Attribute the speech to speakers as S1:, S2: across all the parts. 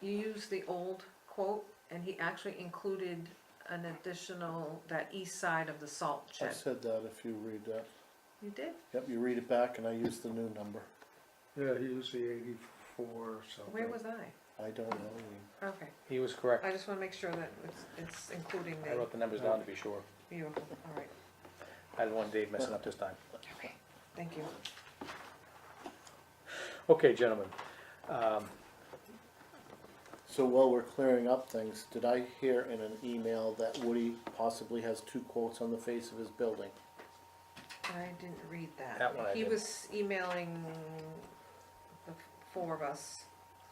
S1: you used the old quote, and he actually included an additional, that east side of the salt
S2: I
S1: shed.
S2: said that if you read that.
S1: You did?
S2: Yep, you read it back and I use the new number.
S3: Yeah, he was the eighty-four something.
S1: Where was I?
S2: I don't know. Lean.
S1: Okay,
S4: He was correct.
S1: I just wanna make sure that it's, it's including
S4: I
S1: the,
S4: wrote the numbers down to be sure.
S1: beautiful, all right,
S4: I didn't want Dave messing up this time.
S1: okay, thank you.
S4: Okay, gentlemen. Um,
S2: So while we're clearing up things, did I hear in an email that Woody possibly has two quotes on the face of his building?
S1: I didn't read that.
S4: That one I
S1: He
S4: did.
S1: was emailing the four of us.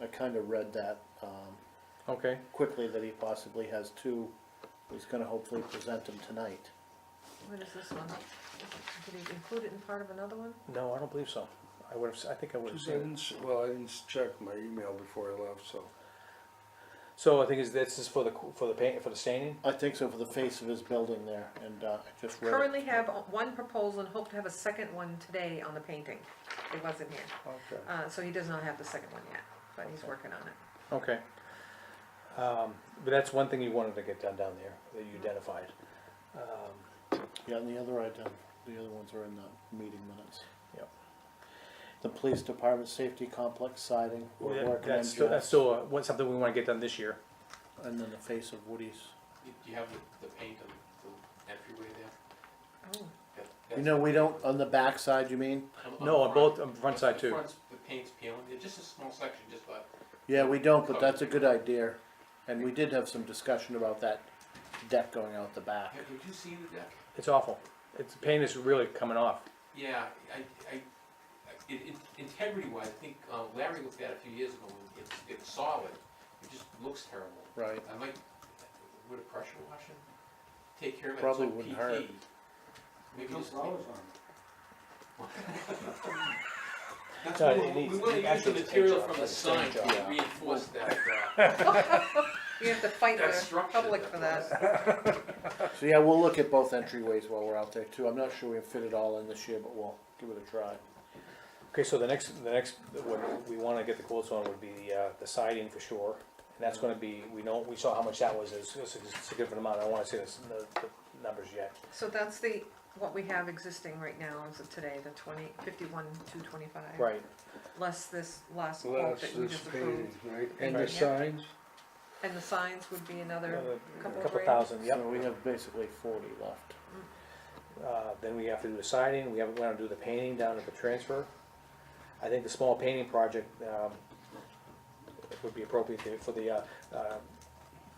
S2: I kind of read that, um,
S4: Okay,
S2: quickly that he possibly has two. He's gonna hopefully present them tonight.
S1: What is this one? Did he include it in part of another one?
S4: no, I don't believe so. I would have, I think I would have
S3: Cause
S4: seen
S3: I
S4: it.
S3: didn't, s- well, I didn't s- check my email before I left, so.
S4: So I think is this is for the, for the paint, for the staining?
S2: I think so for the face of his building there and, uh, I just read it.
S1: Currently have one proposal and hope to have a second one today on the painting. It wasn't here.
S3: Okay.
S1: Uh, so he does not have the second one yet, but he's working on it.
S4: Okay. Um, But that's one thing you wanted to get done down there, that you identified. Um,
S2: Yeah, and the other item, the other ones are in the meeting minutes.
S4: Yep.
S2: The police department safety complex siding, we're working on
S4: That's still, that's
S2: Jeff's,
S4: still uh, what's something we wanna get done this year.
S2: and then the face of Woody's.
S5: Do you have the, the paint on the entryway there?
S1: Oh,
S5: That-
S2: You
S5: that's-
S2: know, we don't, on the back side, you mean?
S5: Um, the
S4: No, on
S5: front.
S4: both, on the front
S5: The
S4: side too.
S5: front's- The paint's peeling, There's just a small section, just about
S2: Yeah, we don't, but that's a good idea, and we did have some discussion about that deck going out the back.
S5: have, have you seen the deck?
S4: It's awful. It's, paint is really coming off.
S5: Yeah, I, I, I- it, it, integrity wise, I think uh, Larry looked at it a few years ago, and it's, it's solid, it just looks terrible.
S2: Right.
S5: I might, would a pressure washer take care of it? It's
S2: Probably
S5: like
S2: wouldn't
S5: PT.
S2: hurt.
S5: Maybe just. That's
S4: No,
S5: what
S4: it
S5: we, we
S4: needs-
S5: wanna
S4: it
S5: use the
S4: actually needs
S5: material
S4: paint job,
S5: from the
S4: that's the
S5: sign
S4: paint
S5: to
S2: job.
S5: reinforce that, uh,
S1: You have to fight
S5: That
S1: the
S5: structure
S1: public
S5: that
S1: for that.
S2: So, yeah, we'll look at both entryways while we're out there too, I'm not sure we can fit it all in this year, but we'll give it a try.
S4: Okay, so the next, the next, what we wanna get the quotes on would be the, uh, the siding for sure. And that's gonna be, we know, we saw how much that was, it's it's a significant amount, I don't wanna say this, the, the numbers yet.
S1: So that's the, what we have existing right now is of today, the twenty, fifty-one, two twenty-five.
S4: Right,
S1: Less this last quote
S3: Last
S1: that you
S3: is
S1: just
S3: painting,
S1: approved.
S3: right, and the
S1: Right.
S3: signs,
S1: And the signs would be another,
S4: another
S1: Couple
S4: couple
S1: grand.
S4: thousand, yep.
S2: So we have basically forty left.
S4: Uh, then we have to do the siding, we have, we wanna do the painting down at the transfer. I think the small painting project, um, would be appropriate to- for the, uh, uh,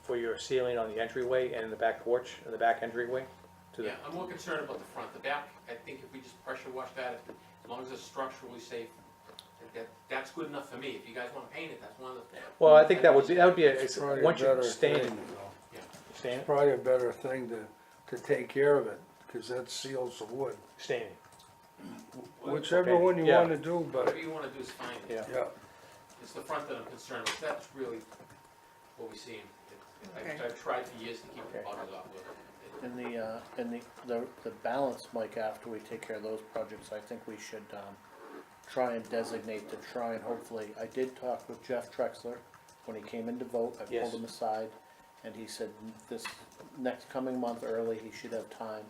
S4: for your ceiling on the entryway and the back porch, and the back entryway to the,
S5: Yeah, I'm more concerned about the front, the back, I think if we just pressure wash that, as long as it's structurally safe, that- that, that's good enough for me, if you guys wanna paint it, that's one of the.
S4: well, I think that would be, that would be, a- it's,
S3: probably a
S4: once you
S3: better
S4: stain,
S3: thing,
S4: it-
S3: you know.
S4: stain it,
S3: Probably a better thing to, to take care of it, cause that seals the wood.
S4: stain it.
S3: Whichever
S4: okay,
S3: one you
S4: yeah.
S3: wanna do, but,
S5: Whatever you wanna do is fine,
S4: Yeah.
S3: yeah,
S5: it's the front that I'm concerned with, that's really what we see. It- I've,
S1: Okay.
S5: I've tried for years to keep the
S4: Okay.
S5: buggers off with it.
S2: And the, uh, and the, the, the balance, Mike, after we take care of those projects, I think we should, um, try and designate to try and hopefully, I did talk with Jeff Trexler when he came in to vote, I
S4: Yes.
S2: pulled him aside, and he said this next coming month early, he should have time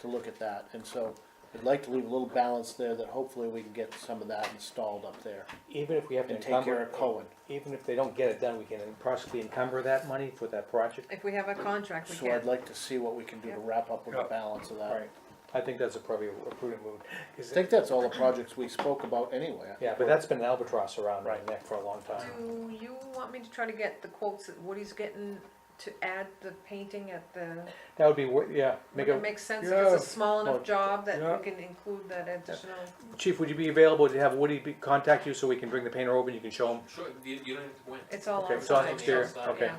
S2: to look at that, and so I'd like to leave a little balance there that hopefully we can get some of that installed up there
S4: Even if we have to
S2: and take care
S4: encumber,
S2: of Cohen.
S4: even if they don't get it done, we can possibly encumber that money for that project.
S1: if we have a contract, we
S2: So I'd
S1: can.
S2: like to see what we can do to wrap up with the
S3: Yeah.
S2: balance of that.
S4: Right, Uh, I think that's a probably a prudent move. 'cause
S2: I think that's all the projects we spoke about anyway.
S4: Yeah, but that's been an albatross around my neck for a long time.
S1: Do you want me to try to get the quotes that Woody's getting to add the painting at the,
S4: That would be, wor- yeah, make
S1: would it
S4: a,
S1: make sense if it's a
S3: Yeah.
S1: small
S4: Well,
S1: enough job that
S3: yeah.
S1: we can include that additional?
S4: chief, would you be available to have Woody be, contact you so we can bring the painter over and you can show him?
S5: Sure, you, you don't have to go in.
S1: It's all
S4: Okay,
S1: on.
S4: so it's
S1: site,
S4: exterior,
S1: yeah.
S4: okay.
S1: Yeah.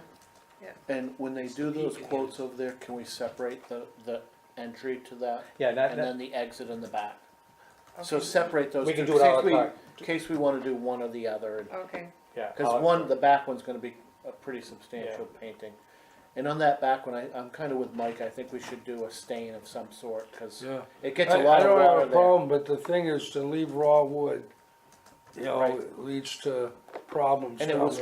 S2: And when they do those quotes over there, can we separate the, the entry to that?
S4: Yeah, that,
S2: And then
S4: that,
S2: the exit and the back? So
S1: Okay.
S2: separate those.
S4: We can
S2: two,
S4: do it à la
S2: in case we-
S4: carte.
S2: In case we wanna do one or the other, and-
S1: Okay,
S4: yeah.
S2: cause
S4: I'll-
S2: one, the back one's gonna be a pretty substantial painting. And on that back one, I, I'm kinda with Mike, I think we should do a stain of some sort, cause
S3: yeah.
S2: it gets a
S3: I-
S2: lot of
S3: I don't
S2: water
S3: have a
S2: there.
S3: problem, but the thing is to leave raw wood, you know,
S2: Right.
S3: it leads to problems
S2: And it
S3: down
S2: was
S3: the